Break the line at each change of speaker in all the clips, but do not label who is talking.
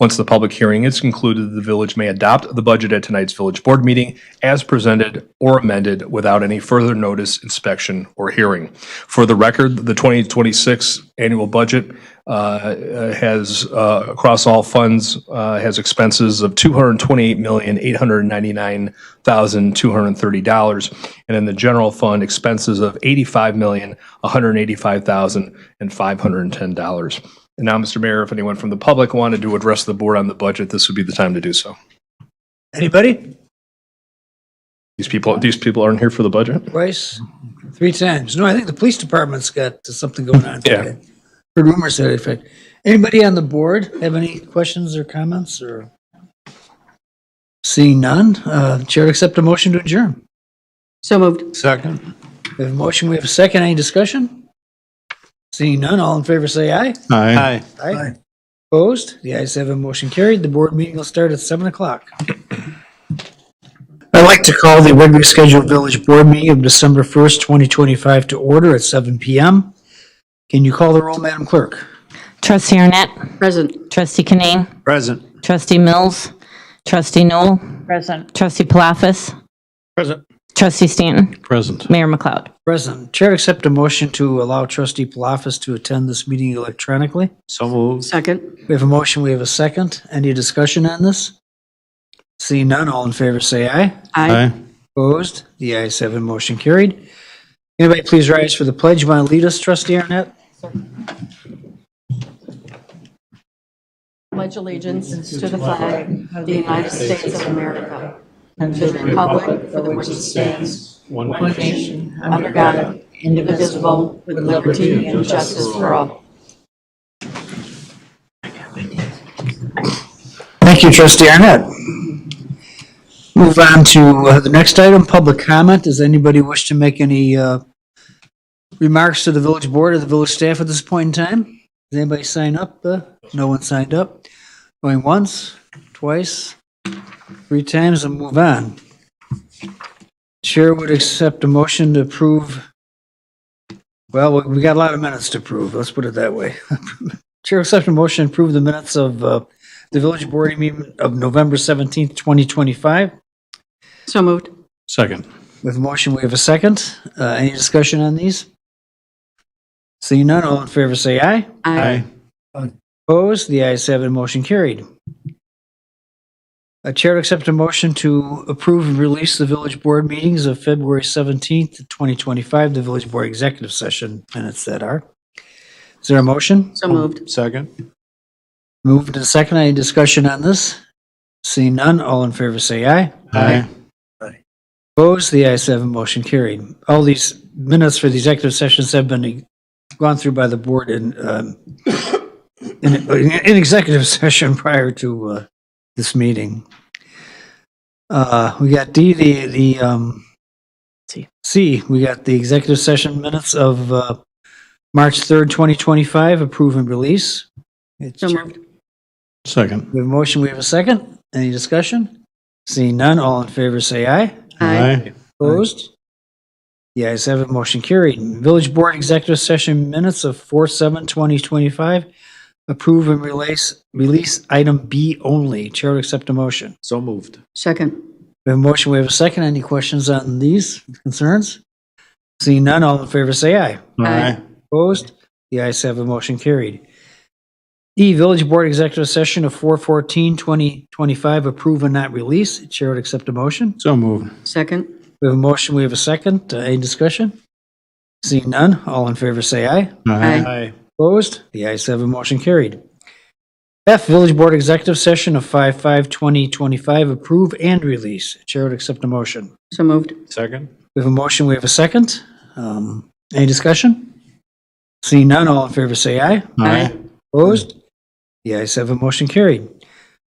Once the public hearing is concluded, the village may adopt the budget at tonight's village board meeting as presented or amended without any further notice, inspection, or hearing. For the record, the 2026 annual budget uh, has, uh, across all funds, uh, has expenses of $228,899,230. And in the general fund, expenses of $85,185,510. And now, Mr. Mayor, if anyone from the public wanted to address the board on the budget, this would be the time to do so.
Anybody?
These people, these people aren't here for the budget?
Twice? Three times? No, I think the police department's got something going on
Yeah.
today. Heard rumors to that effect. Anybody on the board have any questions or comments or? Seeing none, uh, Chair would accept a motion to adjourn.
So moved.
Second. We have a motion, we have a second. Any discussion? Seeing none, all in favor say aye.
Aye.
Aye. Opposed? The ayes have a motion carried. The board meeting will start at seven o'clock. I'd like to call the regularly scheduled village board meeting of December first, twenty twenty-five to order at seven PM. Can you call the roll, Madam Clerk?
Trustee Arnett,
Present.
trustee Kinane,
Present.
trustee Mills, trustee Noel,
Present.
trustee Palafis. Present. Trustee Stanton,
Present.
Mayor McLeod.
Present. Chair, accept a motion to allow trustee Palafis to attend this meeting electronically.
So moved.
Second.
We have a motion, we have a second. Any discussion on this? Seeing none, all in favor say aye. Opposed? The ayes have it, motion carried. Anybody please rise for the pledge. You want to lead us, trustee Arnett?
Pledge allegiance to the flag of the United States of America and to the republic for which it stands, one nation, under God, indivisible, with liberty and justice for all.
Thank you, trustee Arnett. Move on to uh, the next item, public comment. Does anybody wish to make any uh, remarks to the village board or the village staff at this point in time? Does anybody sign up? Uh, No one signed up. Going once, twice, three times, and move on. Chair would accept a motion to approve. Well, we- we got a lot of minutes to approve, let's put it that way. Chair accept a motion to approve the minutes of uh, the village board meeting of November 17th, 2025.
So moved.
Second.
With motion, we have a second. Uh, Any discussion on these? Seeing none, all in favor say aye. Opposed, the ayes have it, motion carried. A chair to accept a motion to approve and release the village board meetings of February 17th, 2025, the village board executive session minutes that are. Is there a motion?
So moved.
Second.
Moved and second, any discussion on this? Seeing none, all in favor say aye. Opposed, the ayes have a motion carried. All these minutes for the executive sessions have been gone through by the board in, um, in, in executive session prior to, uh, this meeting. Uh, we got D, the, the, um,
C.
C, we got the executive session minutes of, uh, March 3rd, 2025, approve and release. It's-
So moved.
Second.
We have a motion, we have a second. Any discussion? Seeing none, all in favor say aye. Opposed? The ayes have it, motion carried. Village Board Executive Session Minutes of 4/7/2025. Approve and release, release item B only. Chair would accept a motion.
So moved.
Second.
We have a motion, we have a second. Any questions on these concerns? Seeing none, all in favor say aye.
Aye.
Opposed? The ayes have a motion carried. E, Village Board Executive Session of 4/14/2025. Approve and not release. Chair would accept a motion.
So moved.
Second.
We have a motion, we have a second. Uh, Any discussion? Seeing none, all in favor say aye.
Aye.
Opposed? The ayes have a motion carried. F, Village Board Executive Session of 5/5/2025, approve and release. Chair would accept a motion.
So moved.
Second.
We have a motion, we have a second. Um, Any discussion? Seeing none, all in favor say aye. Opposed? The ayes have a motion carried.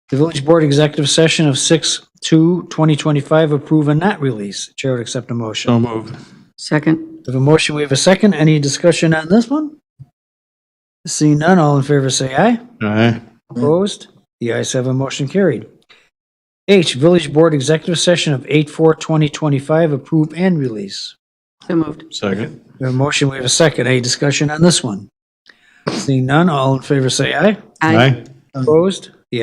The Village Board Executive Session of 6/2/2025, approve and not release. Chair would accept a motion.
So moved.
Second.
We have a motion, we have a second. Any discussion on this one? Seeing none, all in favor say aye.
Aye.
Opposed? The ayes have a motion carried. H, Village Board Executive Session of 8/4/2025, approve and release.
So moved.
Second.
We have a motion, we have a second. Any discussion on this one? Seeing none, all in favor say aye. Opposed?